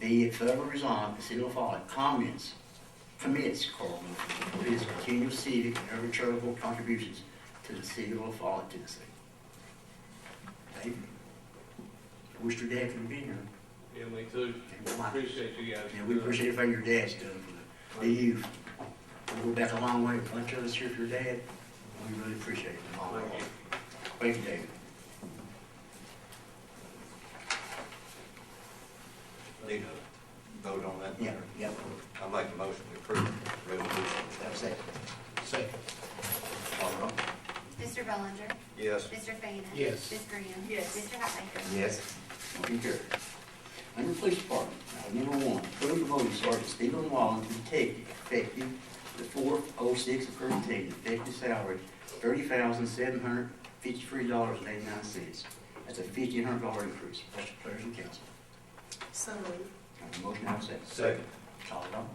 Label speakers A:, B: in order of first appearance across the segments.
A: Be it further resolved, the city of Fallon comments, commits, Carl, to its continual civic and other charitable contributions to the city of Fallon, Tennessee. David, wish your dad could be here.
B: Yeah, me too.
A: and my-
B: Appreciate you guys.
A: And we appreciate everything your dad's done for the- the youth. We go back a long way, a bunch of us here for your dad. We really appreciate it. Mom.
B: Thank you.
A: Thank you, David.
C: Need to vote on that
A: Yeah,
C: matter?
A: yeah,
C: I make a motion to approve resolution.
A: that's it. Second. All right.
D: Mr. Bellinger.
C: Yes.
D: Mr. Fainan.
E: Yes.
D: Ms. Graham.
F: Yes.
D: Mr. Hatmaker.
C: Yes.
A: Motion carried. Under Police Department, item number one, approve the voting Sergeant Stephen Wallen to detective effective the fourth oh six of current team, effective salary thirty thousand seven hundred fifty-three dollars and eighty-nine cents. That's a fifteen hundred dollar increase. What's your pleasure, council?
F: So moved.
A: Have a motion, have a second.
C: Second.
A: Call it on.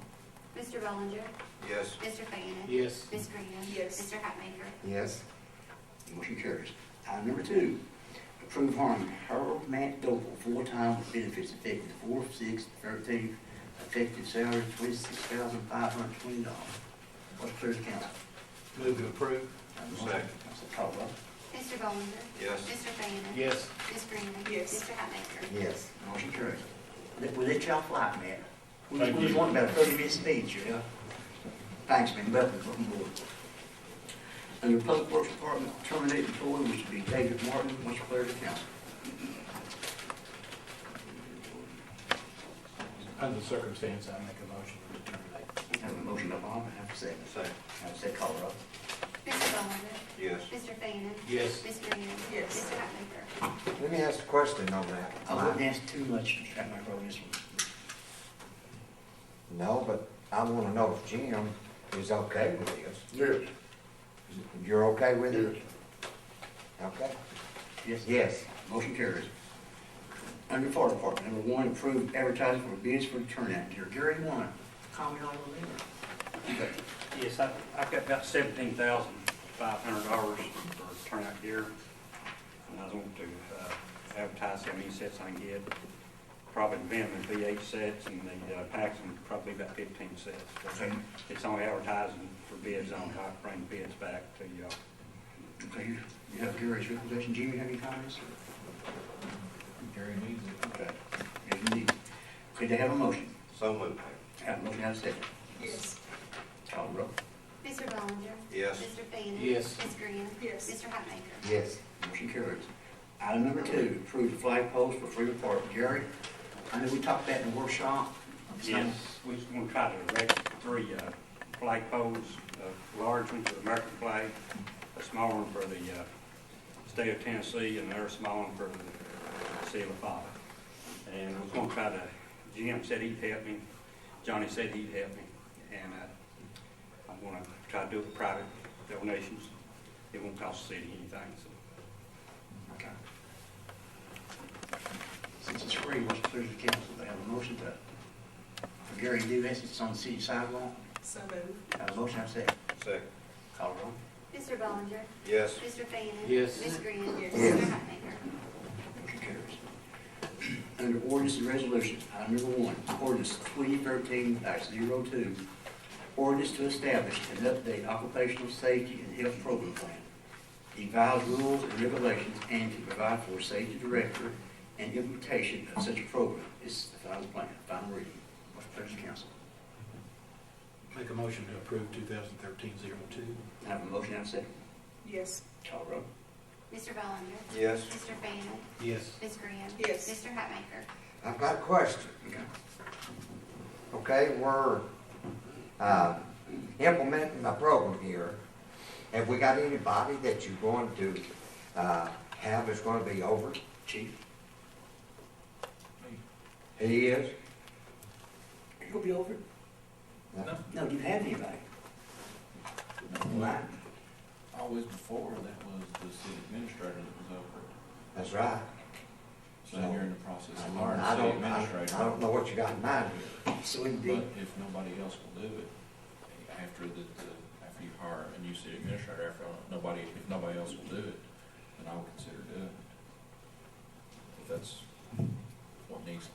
D: Mr. Bellinger.
C: Yes.
D: Mr. Fainan.
E: Yes.
D: Ms. Graham.
F: Yes.
D: Mr. Hatmaker.
C: Yes.
A: Motion carries. Item number two, approve hiring Harold Matt Doble, full-time with benefits effective four, six, thirteen, effective salary twenty-six thousand five hundred twenty dollars. What's clear to council?
C: Move to approve. Second.
A: Council Caldwell.
D: Mr. Bellinger.
C: Yes.
D: Mr. Fainan.
E: Yes.
D: Ms. Graham.
F: Yes.
D: Mr. Hatmaker.
C: Yes.
A: Motion carries. Let, we let y'all fly, man. We
E: Thank
A: we was
E: you.
A: wanting about a thirty-minute speech, you know? Thanks, man, welcome, welcome aboard. Under Public Works Department, terminate employee, which would be David Martin, what's clear to council?
E: Under the circumstance, I make a motion to terminate.
A: Have a motion by Bob, and have a second.
C: Second.
A: Have a second, call it up.
D: Mr. Bellinger.
C: Yes.
D: Mr. Fainan.
E: Yes.
D: Ms. Graham.
F: Yes.
D: Mr. Hatmaker.
C: Let me ask a question on that.
A: I wouldn't ask too much to try my roll this one.
C: No, but I want to know if Jim is okay with this.
A: Yes.
C: You're okay with it? Okay.
A: Yes.
C: Yes.
A: Motion carries. Under Fire Department, number one, approve advertising for bids for the turnout gear. Gary, one, comment on the letter.
G: Yes, I- I've got about seventeen thousand five hundred dollars for turnout gear. And I want to uh, advertise how many sets I can get. Probably the van would be eight sets and the uh, packs would probably about fifteen sets. But
A: Okay,
G: It's only advertising for bids, on how to bring bids back to y'all.
A: okay, you- you have Gary's recommendation. Jimmy, have any comments?
E: Gary needs it.
A: Okay. Yes, indeed. Could they have a motion?
C: So moved.
A: Have a motion, have a second.
F: Yes.
A: Call the roll.
D: Mr. Bellinger.
C: Yes.
D: Mr. Fainan.
E: Yes.
D: Ms. Graham.
F: Yes.
D: Mr. Hatmaker.
C: Yes.
A: Motion carries. Item number two, approve the flag post for Freedom Park. Gary, I know we talked about in the workshop. It's not-
G: Yes, we're going to try to erect three uh, flag poles, a large one for the American flag, a small one for the uh, state of Tennessee, and another small one for the city of Father. And we're going to try to, Jim said he'd help me, Johnny said he'd help me, and uh, I'm going to try to do it with private donations. It won't cost the city anything, so.
A: Okay. Since it's free, what's the pleasure of the council? They have a motion to, for Gary to do this, it's on the city sidewalk.
F: So moved.
A: Have a motion, have a second.
C: Second.
A: Call roll.
D: Mr. Bellinger.
C: Yes.
D: Mr. Fainan.
E: Yes.
D: Ms. Graham.
F: Yes.
D: Mr. Hatmaker.
A: Motion carries. Under ordinance and resolutions, item number one, ordinance twenty thirteen 2 ordinance to establish and update occupational safety and health program plan, devise rules and regulations, and to provide for safety director and implementation of such a program. This is the final plan, final reading. What's the pleasure of the council?
E: Make a motion to approve 2013-02.
A: I Have a motion, I have a second.
F: Yes.
A: Call roll.
D: Mr. Bellinger.
C: Yes.
D: Mr. Fainan.
E: Yes.
D: Ms. Graham.
F: Yes.
D: Mr. Hatmaker.
C: I've got a question.
A: Okay.
C: Okay, we're, uh, implementing a program here. Have we got anybody that you're going to, uh, have is gonna be over?
A: Chief,
C: He is?
A: you'll be over?
C: No.
A: No, do you have anybody? Right.
H: Always before, that was the city administrator that was over it.
C: That's right.
H: So now you're in the process
C: I
H: of
C: mean,
H: hiring
C: I
H: a city
C: don't, I I don't
H: administrator.
C: know what you got in mind here.
A: So it'd be,
H: But if nobody else will do it, after the, the- after you hire a new city administrator, after nobody, if nobody else will do it, then I would consider doing it. If that's what needs